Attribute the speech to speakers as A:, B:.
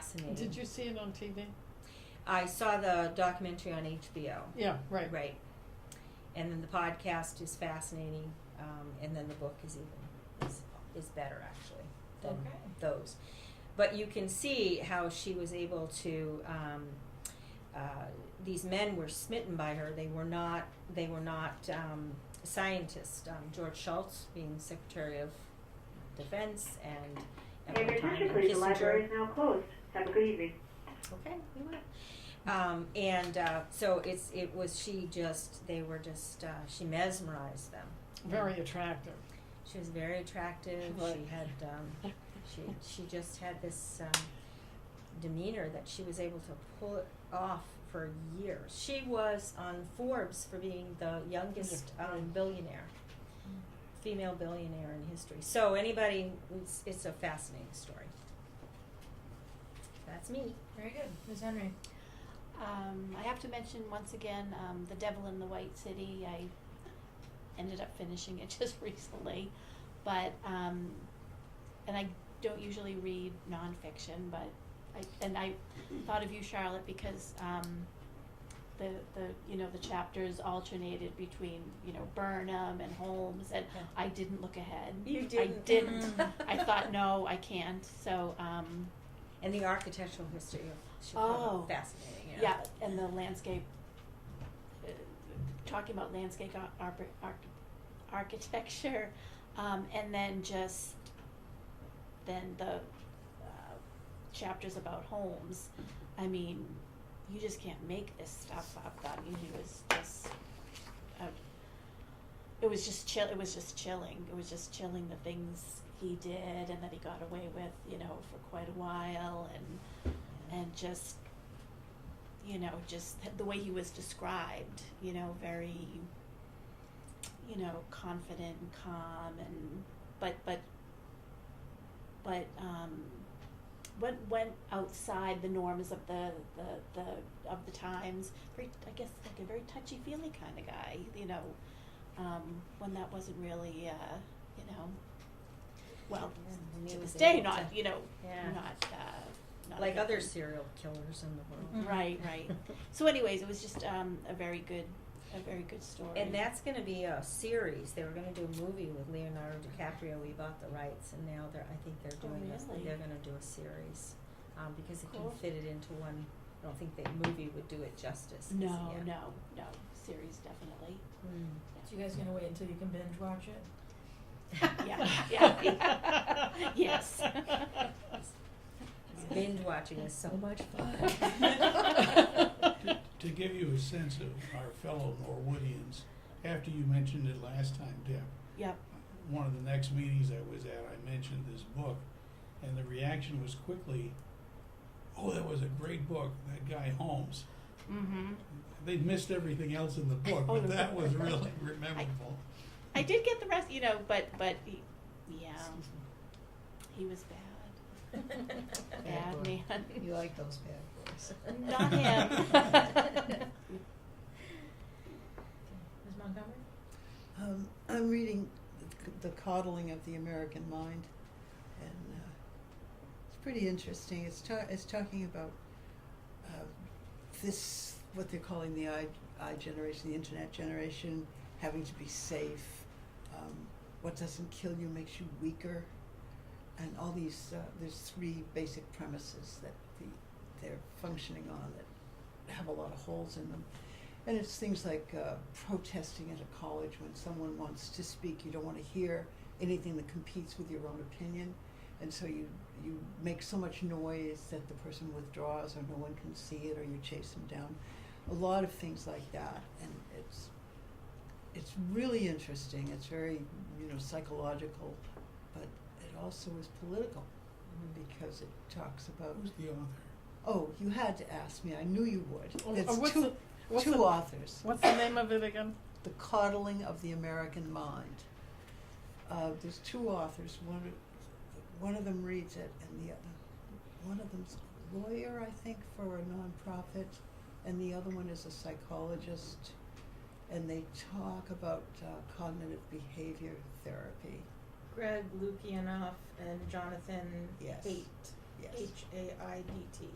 A: fascinating.
B: Did you see it on TV?
A: I saw the documentary on HBO.
B: Yeah, right.
A: Right. And then the podcast is fascinating, um, and then the book is even is, is better actually than
C: Okay.
A: those. But you can see how she was able to. Um, uh, these men were smitten by her. They were not. They were not um, scientists. Um, George Shultz, being Secretary of Defense, and at
D: Hey,
A: one
D: there's
A: time,
D: Mr. Pretty, the
A: Kissinger.
D: library is now closed. Have a good evening.
A: Okay, we will. Um, and uh, so it's it was she just they were just uh, she mesmerized them.
B: Very attractive.
A: She was very attractive.
B: Right.
A: She had um, she she just had this um, demeanor that she was able to pull it off for years. She was on Forbes for being the youngest
B: Yeah,
A: um,
B: right.
A: billionaire, female billionaire in history. So anybody, it's, it's a fascinating story. That's me.
C: Very good. Ms. Henry.
E: Um, I have to mention once again, um, The Devil in the White City. I ended up finishing it just recently, but um, and I don't usually read nonfiction, but I and I thought of you, Charlotte, because um, the the you know the chapters alternated between you know Burnham and Holmes, and
A: Yeah.
E: I didn't look ahead.
A: You
E: I
A: didn't.
E: didn't.
A: Mm.
E: I thought no, I can't. So. Um,
A: And the architectural history of Chicago,
E: Oh.
A: fascinating.
E: Yeah, and the landscape, uh, talking about landscape ar- ar- ar- architecture, um, and then just then the uh, chapters about homes. I mean, you just can't make this stuff up. I mean, it was just. Uh, it was just chill. It was just chilling. It was just chilling the things he did and that he got away with, you know, for quite a while, and and just you know, just th- the way he was described, you know, very, you know, confident and calm, and but but but um, went went outside the norms of the the, the of the times. Very, I guess, like a very touchy feely kind of guy, you know, um, when that wasn't really, uh, you know, well,
A: Yeah, and he
E: to
A: was
E: this day,
A: able
E: not
A: to-
E: you know,
A: Yeah.
E: not uh, not a
A: Like
E: good
A: other
E: thing.
A: serial killers in the world.
C: Mhm.
E: Right, right. So, anyways, it was just um, a very good, a very good story.
A: And that's going to be a series. They were going to do a movie with Leonardo DiCaprio. We bought the rights, and now they're. I think they're
E: Oh,
A: doing.
E: really?
A: A, they're going to do a series um, because they
E: Cool.
A: can fit it into one. I don't think the movie would do it justice.
E: no,
A: yeah.
E: no, no series definitely.
A: Mm.
C: So you guys gonna wait until you can binge watch it?
E: Yeah, yeah. Yes.
A: Binge watching is so much fun.
B: Right.
F: To give you a sense of our fellow Norwoodians, after you mentioned it last time, Deb,
E: Yep.
F: one of the next meetings I was at, I mentioned this book, and the reaction was quickly, "Oh, that was a great book, that guy Holmes."
E: Mm-hmm.
F: They'd missed everything else in the book,
E: Oh,
F: but
E: the-
F: that was really memorable.
E: I did get the rest, you know, but but he- yeah, he was bad,
A: Bad
E: bad
A: boy.
E: man.
G: You like those bad boys.
E: Not him.
C: Ms. Montgomery?
G: Um, I'm reading The Coddling of the American Mind, and uh, it's pretty interesting. It's, ta- it's talking about uh, this, what they're calling the I, I generation, the internet generation, having to be safe. Um, what doesn't kill you makes you weaker. And all these, uh, there's three basic premises that the, they're functioning on that have a lot of holes in them. And it's things like uh, protesting at a college when someone wants to speak, you don't want to hear anything that competes with your own opinion. And so you, you make so much noise that the person withdraws or no one can see it or you chase them down. A lot of things like that. And it's, it's really interesting. It's very, you know, psychological, but it also is political because it talks about,
F: Who's the author?
G: oh, you had to ask me. I knew you
B: Oh,
G: would.
B: uh,
G: It's
B: what's
G: two,
B: the- what's
G: two
B: the-
G: authors.
B: What's the name of it again?
G: The Coddling of the American Mind. Uh, there's two authors. One, one of them reads it, and the other, one of them's a lawyer, I think, for a nonprofit, and the other one is a psychologist. And they talk about uh, cognitive behavior therapy.
C: Greg Lukianoff and Jonathan
G: Yes.
C: Haidt.
H: Yes.
E: H A I D T.